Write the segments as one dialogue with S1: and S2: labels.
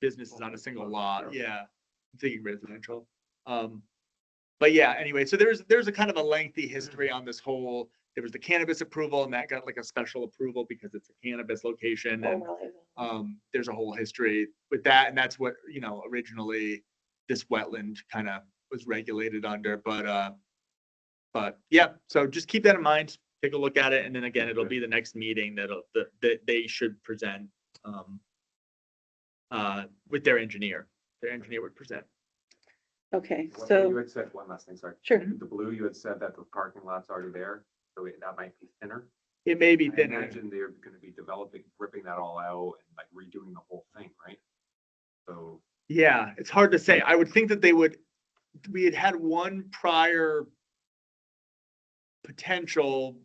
S1: businesses on a single lot, yeah, I'm thinking residential. Um, but yeah, anyway, so there's, there's a kind of a lengthy history on this whole, there was the cannabis approval and that got like a special approval because it's a cannabis location
S2: Oh,
S1: and um, there's a whole history with that, and that's what, you know, originally this wetland kind of was regulated under, but, uh, but, yeah, so just keep that in mind, take a look at it, and then again, it'll be the next meeting that'll, that, that they should present, um, uh, with their engineer, their engineer would present.
S2: Okay,
S3: One thing You
S2: so,
S3: had said, one last thing, sorry.
S2: sure,
S3: The blue, you had said that the parking lot's already there, so it- that might be thinner.
S1: It may be
S3: I
S1: thinner,
S3: imagine they're gonna be developing, ripping that all out and like redoing the whole thing, right? So,
S1: yeah, it's hard to say, I would think that they would, we had had one prior potential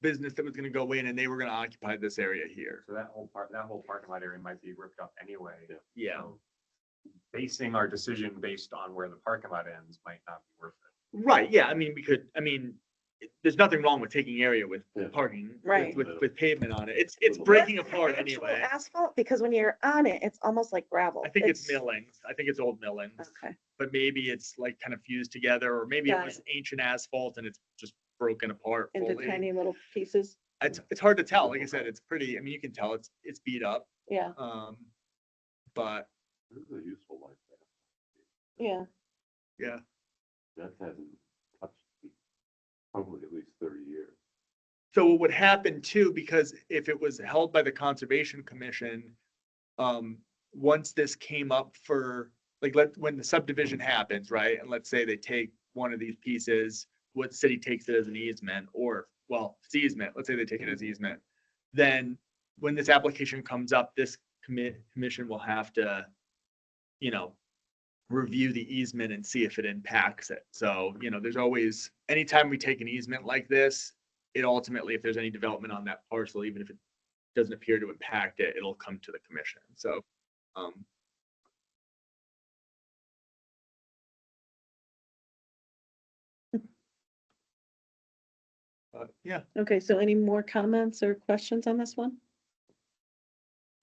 S1: business that was gonna go in, and they were gonna occupy this area here.
S3: so that whole part, that whole parking lot area might be ripped up anyway.
S1: Yeah,
S3: So Basing our decision based on where the parking lot ends might not be worth it.
S1: right, yeah, I mean, we could, I mean, it- there's nothing wrong with taking area with
S4: Yeah.
S1: parking, with-
S2: Right.
S1: with, with pavement on it, it's, it's
S4: Little bit.
S1: breaking apart
S2: Actual
S1: anyway.
S2: Asphalt, because when you're on it, it's almost like gravel.
S1: I think it's millings, I think it's old millings,
S2: Okay,
S1: but maybe it's like kind of fused together, or maybe it
S2: Got
S1: was ancient asphalt and it's just broken apart
S2: into
S1: fully.
S2: tiny little pieces,
S1: It's, it's hard to tell, like I said, it's pretty, I mean, you can tell it's, it's beat up,
S2: yeah,
S1: um, but,
S4: This is a useful life.
S2: yeah,
S1: yeah,
S4: That hasn't touched me probably at least thirty years.
S1: So what would happen too, because if it was held by the Conservation Commission, um, once this came up for, like, let, when the subdivision happens, right? And let's say they take one of these pieces, what city takes it as an easement or, well, it's easement, let's say they take it as easement. Then when this application comes up, this commit, commission will have to, you know, review the easement and see if it impacts it. So, you know, there's always, anytime we take an easement like this, it ultimately, if there's any development on that parcel, even if it doesn't appear to impact it, it'll come to the commission. So, um, but, yeah,
S2: okay, so any more comments or questions on this one?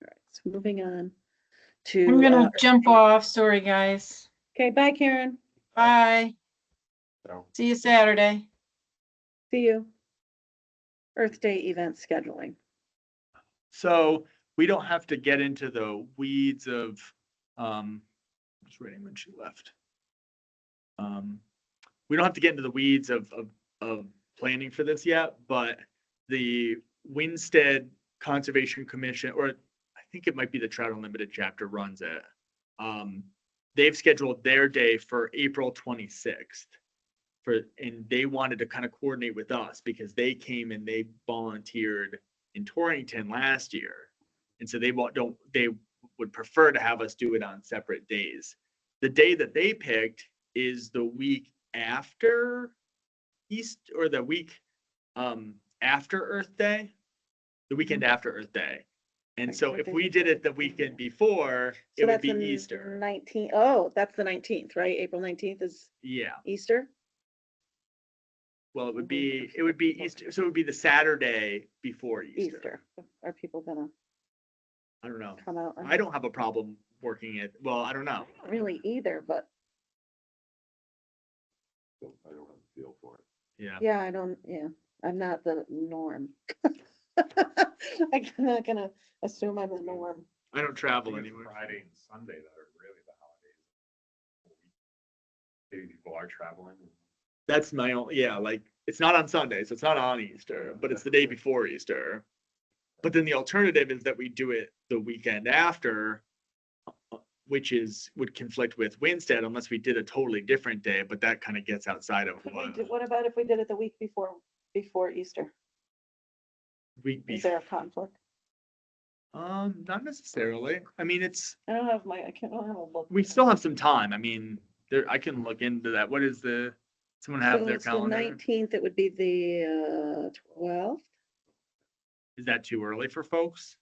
S2: All right, so moving on to.
S5: I'm
S2: uh,
S5: gonna jump off. Sorry, guys.
S2: Okay, bye Karen,
S5: Bye.
S4: So.
S5: See you Saturday.
S2: see you. Earth Day event scheduling,
S1: so we don't have to get into the weeds of, um, I was reading when she left. Um, we don't have to get into the weeds of, of, of planning for this yet, but the Winstead Conservation Commission, or I think it might be the Trout Unlimited chapter runs it. Um, they've scheduled their day for April twenty-sixth. For, and they wanted to kind of coordinate with us because they came and they volunteered in Torrington last year. And so they won't, don't, they would prefer to have us do it on separate days. The day that they picked is the week after East, or the week, um, after Earth Day, the weekend after Earth Day. And
S2: Like,
S1: so
S2: what
S1: if
S2: day
S1: we
S2: is
S1: did
S2: it?
S1: it the weekend before,
S2: so
S1: it would
S2: that's
S1: be
S2: the
S1: Easter.
S2: nineteen, oh, that's the nineteenth, right, April nineteenth is
S1: Yeah,
S2: Easter?
S1: well, it would
S2: Mhm.
S1: be, it would be Easter, so it would be the Saturday before Easter.
S2: Easter, are people gonna
S1: I don't know.
S2: come out? on-
S1: I don't have a problem working it. Well, I don't know.
S2: don't Really either, but
S4: I don't have a feel for it.
S1: Yeah.
S2: yeah, I don't, yeah, I'm not the norm. I'm not gonna assume I'm the norm.
S1: I don't travel
S3: I think it's
S1: anywhere.
S3: Friday and Sunday that are really the holidays. Maybe people are traveling.
S1: That's my only, yeah, like, it's not on Sunday, so it's not on Easter, but it's the day before Easter. But then the alternative is that we do it the weekend after, uh, which is, would conflict with Wednesday unless we did a totally different day, but that kind of gets outside of
S2: Could we
S1: what
S2: do- What about if we did it the week before, before Easter?
S1: we,
S2: Is there a conflict?
S1: um, not necessarily. I mean, it's,
S2: I don't have my, I can't, I don't have a book.
S1: we still have some time. I mean, there, I can look into that. What is the, someone have their calendar?
S2: Nineteenth, it would be the uh, twelfth,
S1: Is that too early for folks?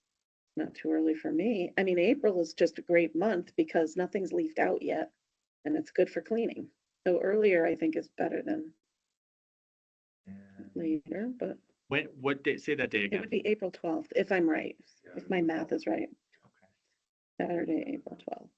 S2: not too early for me. I mean, April is just a great month because nothing's leafed out yet. And it's good for cleaning. So earlier, I think is better than later, but
S1: When, what day, say that day
S2: it
S1: again.
S2: would be April twelfth, if I'm right, if my math is right. Saturday, April twelfth.